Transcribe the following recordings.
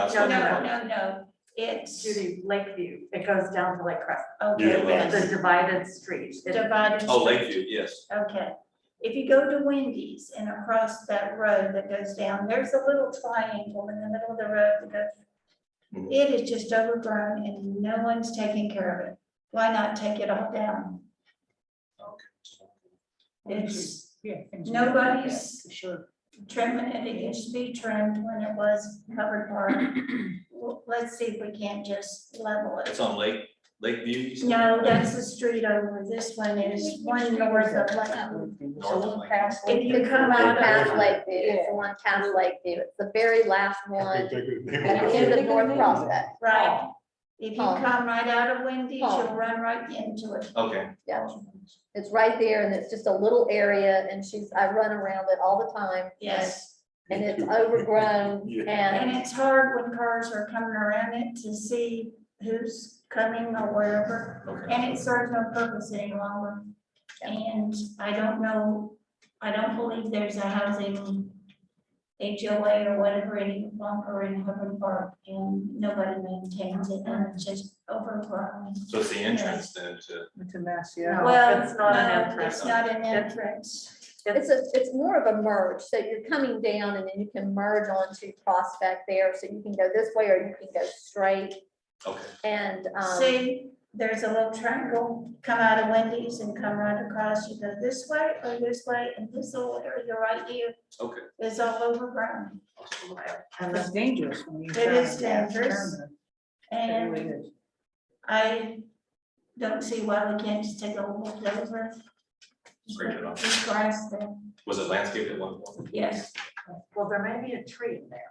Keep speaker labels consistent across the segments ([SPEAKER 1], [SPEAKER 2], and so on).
[SPEAKER 1] that's
[SPEAKER 2] No,
[SPEAKER 1] what
[SPEAKER 2] no,
[SPEAKER 1] I'm-
[SPEAKER 2] no, no, it's
[SPEAKER 3] Judy, Lakeview, it goes down to Lake Crest,
[SPEAKER 2] okay,
[SPEAKER 1] Yeah, well-
[SPEAKER 3] the
[SPEAKER 2] yes,
[SPEAKER 3] divided street. It-
[SPEAKER 2] divided.
[SPEAKER 1] Oh,
[SPEAKER 2] street.
[SPEAKER 1] Lakeview, yes.
[SPEAKER 2] Okay, if you go to Wendy's and across that road that goes down, there's a little triangle in the middle of the road that goes.
[SPEAKER 1] Mhm.
[SPEAKER 2] It is just overgrown and no one's taking care of it. Why not take it all down? It's,
[SPEAKER 4] Yeah, things are-
[SPEAKER 2] nobody's
[SPEAKER 4] For sure.
[SPEAKER 2] trimming it, it used to be trimmed when it was covered park. Well, Let's see if we can't just level it.
[SPEAKER 1] It's on Lake, Lakeview. you said?
[SPEAKER 2] No, that's the street over, this one is one north of Lakewood.
[SPEAKER 1] North of Lake.
[SPEAKER 5] If you come
[SPEAKER 2] Like
[SPEAKER 5] out
[SPEAKER 2] that
[SPEAKER 5] past
[SPEAKER 6] one.
[SPEAKER 5] Lakeview, it's the one past Lakeview, it's the very last one at the end of North Prospect.
[SPEAKER 2] Right. If you
[SPEAKER 5] Oh.
[SPEAKER 2] come right out of Wendy's, you'll
[SPEAKER 5] Oh.
[SPEAKER 2] run right into it.
[SPEAKER 1] Okay.
[SPEAKER 5] Yeah. It's right there and it's just a little area and she's, I run around it all the time.
[SPEAKER 2] Yes,
[SPEAKER 5] And it's overgrown
[SPEAKER 6] Yeah.
[SPEAKER 2] and
[SPEAKER 5] and,
[SPEAKER 2] it's hard when cars are coming around it to see who's coming or wherever.
[SPEAKER 1] Okay.
[SPEAKER 2] And it serves no purpose any longer. And I don't know, I don't believe there's a housing HOA or whatever any longer in Hubbard Park and nobody maintains it and it's just overgrown.
[SPEAKER 1] So it's the entrance then to,
[SPEAKER 4] It's a mess,
[SPEAKER 3] No,
[SPEAKER 4] yeah.
[SPEAKER 2] Well,
[SPEAKER 3] it's not an
[SPEAKER 2] no,
[SPEAKER 3] entrance.
[SPEAKER 2] It's not an entrance.
[SPEAKER 5] it's a, it's more of a merge. So you're coming down and then you can merge onto Prospect there. So you can go this way or you can go straight
[SPEAKER 1] okay,
[SPEAKER 5] and, um,
[SPEAKER 2] See, there's a little triangle, come out of Wendy's and come right across, you go this way or this way, and this little area right here
[SPEAKER 1] okay.
[SPEAKER 2] is all overgrown.
[SPEAKER 3] And
[SPEAKER 4] It's
[SPEAKER 3] then
[SPEAKER 4] dangerous when you.
[SPEAKER 2] It
[SPEAKER 4] drive
[SPEAKER 2] is
[SPEAKER 4] in that
[SPEAKER 2] dangerous.
[SPEAKER 4] turn. It really
[SPEAKER 2] And
[SPEAKER 4] is.
[SPEAKER 2] I don't see why we can't just take a walk over.
[SPEAKER 1] Break it off.
[SPEAKER 2] Just grass there,
[SPEAKER 1] Was it landscaped at one point?
[SPEAKER 2] yes,
[SPEAKER 3] Well, there may be a tree in there,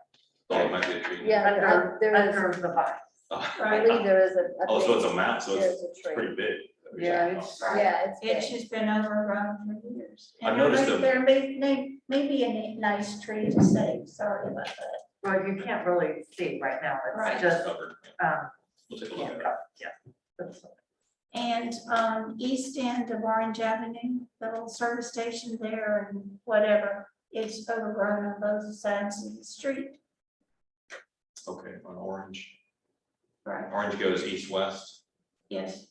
[SPEAKER 1] Oh, it might be a tree.
[SPEAKER 5] yeah, there-
[SPEAKER 3] under,
[SPEAKER 5] there is,
[SPEAKER 3] under the vine.
[SPEAKER 1] Oh,
[SPEAKER 5] I
[SPEAKER 2] right.
[SPEAKER 5] believe there is a- a.
[SPEAKER 1] Oh, so it's
[SPEAKER 5] big-
[SPEAKER 1] a mountain, so
[SPEAKER 5] There's
[SPEAKER 1] it's
[SPEAKER 5] a
[SPEAKER 1] it's
[SPEAKER 5] tree.
[SPEAKER 1] pretty big.
[SPEAKER 4] Yeah, it's-
[SPEAKER 5] Yeah, it's
[SPEAKER 2] It's
[SPEAKER 5] big.
[SPEAKER 2] just been overgrown for years.
[SPEAKER 1] I've noticed
[SPEAKER 2] And
[SPEAKER 1] them.
[SPEAKER 2] There may, may, maybe a ni- nice tree to save, sorry about that.
[SPEAKER 3] Well, you can't really see right now,
[SPEAKER 2] Right.
[SPEAKER 3] it's just,
[SPEAKER 1] Covered.
[SPEAKER 3] um,
[SPEAKER 1] We'll take a look
[SPEAKER 3] yeah,
[SPEAKER 1] at it.
[SPEAKER 3] yeah.
[SPEAKER 2] And um, east end of Orange Avenue, the little service station there and whatever, it's overgrown on both sides of the street.
[SPEAKER 1] Okay, on Orange.
[SPEAKER 2] Right,
[SPEAKER 1] Orange goes east-west.
[SPEAKER 2] yes.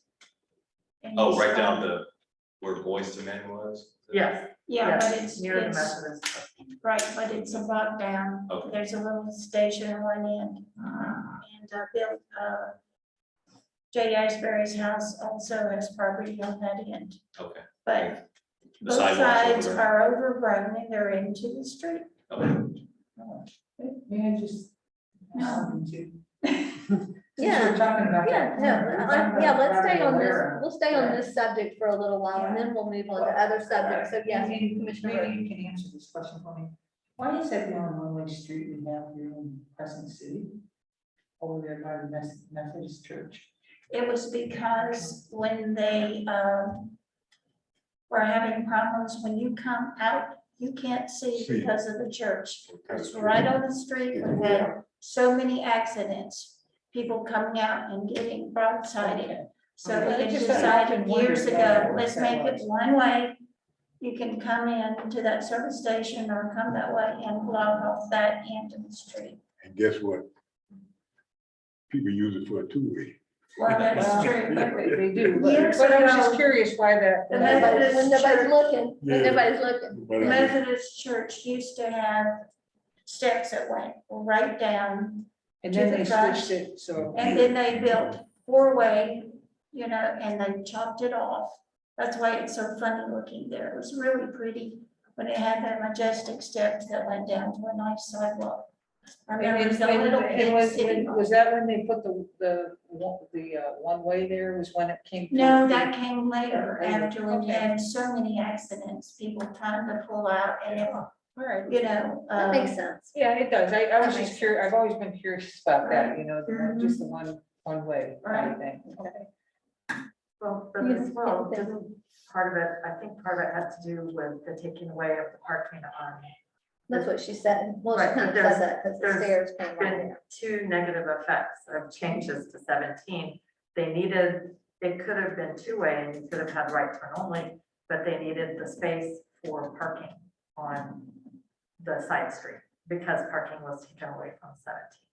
[SPEAKER 2] And
[SPEAKER 1] Oh,
[SPEAKER 2] it's,
[SPEAKER 1] right down
[SPEAKER 2] um,
[SPEAKER 1] the, where Boys to Men was?
[SPEAKER 3] Yes,
[SPEAKER 2] Yeah, but
[SPEAKER 3] yes,
[SPEAKER 2] it's,
[SPEAKER 3] near the
[SPEAKER 2] it's,
[SPEAKER 3] Methodist.
[SPEAKER 2] right, but it's a block down.
[SPEAKER 1] Okay.
[SPEAKER 2] There's a little station on one end. And uh, Bill, uh, Jay Iceberry's house also has property on that end,
[SPEAKER 1] Okay.
[SPEAKER 2] but
[SPEAKER 1] The
[SPEAKER 2] both
[SPEAKER 1] sidewalks over
[SPEAKER 2] sides
[SPEAKER 1] there.
[SPEAKER 2] are overgrown and they're into the street.
[SPEAKER 1] Okay.
[SPEAKER 4] May I just?
[SPEAKER 2] No.
[SPEAKER 4] Something too. Since
[SPEAKER 5] Yeah.
[SPEAKER 4] we're talking about
[SPEAKER 5] Yeah,
[SPEAKER 4] that.
[SPEAKER 5] no,
[SPEAKER 4] we're
[SPEAKER 5] I-
[SPEAKER 4] talking
[SPEAKER 5] I- yeah,
[SPEAKER 4] about
[SPEAKER 5] let's stay
[SPEAKER 4] driving
[SPEAKER 5] on this,
[SPEAKER 4] aware.
[SPEAKER 5] we'll stay on this subject for a little while, and then we'll move on to other subjects, so yes,
[SPEAKER 4] Maybe-
[SPEAKER 5] Commissioner Rowe.
[SPEAKER 4] Maybe you can answer this question for me. Why is that the only one-way street we have here in Crescent City? Over there by the Mes- Methodist Church.
[SPEAKER 2] It was because when they, um, were having problems, when you come out, you can't see
[SPEAKER 6] See.
[SPEAKER 2] because of the church. It's
[SPEAKER 6] Okay.
[SPEAKER 2] right on the street, we had so many accidents, people coming out and getting broadsided. So
[SPEAKER 4] Okay.
[SPEAKER 2] they
[SPEAKER 4] I just thought-
[SPEAKER 2] decided years ago,
[SPEAKER 4] wondered
[SPEAKER 2] let's
[SPEAKER 4] why
[SPEAKER 2] make
[SPEAKER 4] that
[SPEAKER 2] it
[SPEAKER 4] was.
[SPEAKER 2] one way. You can come in to that service station or come that way and block off that end of the street.
[SPEAKER 6] And guess what? People use it for a two-way.
[SPEAKER 2] Well, that's true, but
[SPEAKER 4] They they do,
[SPEAKER 2] Years
[SPEAKER 4] but but I was
[SPEAKER 2] ago-
[SPEAKER 4] just curious why that.
[SPEAKER 2] The
[SPEAKER 4] why that-
[SPEAKER 5] Nobody- when nobody's looking, when
[SPEAKER 6] Yeah.
[SPEAKER 5] nobody's looking,
[SPEAKER 6] But I-
[SPEAKER 2] Methodist church used to have steps that went right down,
[SPEAKER 4] And then
[SPEAKER 2] to
[SPEAKER 4] they
[SPEAKER 2] the front.
[SPEAKER 4] switched it, so.
[SPEAKER 2] and then they built four-way, you know, and they chopped it off. That's why it's so funny looking there. It was really pretty, but it had that majestic steps that went down to a nice sidewalk. I
[SPEAKER 4] And
[SPEAKER 2] remember
[SPEAKER 4] it's-
[SPEAKER 2] the
[SPEAKER 4] and-
[SPEAKER 2] little
[SPEAKER 4] and
[SPEAKER 2] big
[SPEAKER 4] was,
[SPEAKER 2] city.
[SPEAKER 4] and was that when they put the, the, one- the uh, one-way there was when it came?
[SPEAKER 2] No,
[SPEAKER 4] through?
[SPEAKER 2] that came later,
[SPEAKER 4] Later,
[SPEAKER 2] after we
[SPEAKER 4] okay.
[SPEAKER 2] had so many accidents, people trying to pull out and,
[SPEAKER 4] All right.
[SPEAKER 2] you know.
[SPEAKER 5] that
[SPEAKER 2] um,
[SPEAKER 5] makes sense.
[SPEAKER 4] Yeah, it does. I, I was
[SPEAKER 2] That
[SPEAKER 4] just
[SPEAKER 2] makes
[SPEAKER 4] curious, I've always been curious about that, you know, the one-
[SPEAKER 2] Mhm.
[SPEAKER 4] just the one, one way kind
[SPEAKER 2] Right.
[SPEAKER 4] of thing. Okay.
[SPEAKER 3] Well, but
[SPEAKER 5] You
[SPEAKER 3] as well,
[SPEAKER 5] think that-
[SPEAKER 3] doesn't part of it, I think part of it has to do with the taking away of the parking on
[SPEAKER 5] That's what she said, well, she
[SPEAKER 3] Right,
[SPEAKER 5] kind of
[SPEAKER 3] there's-
[SPEAKER 5] said that, because the
[SPEAKER 3] there's
[SPEAKER 5] stairs came right
[SPEAKER 3] been
[SPEAKER 5] there.
[SPEAKER 3] two negative effects of changes to seventeen. They needed, they could have been two-way and you could have had right turn only, but they needed the space for parking on the side street because parking was taken away from seventeen.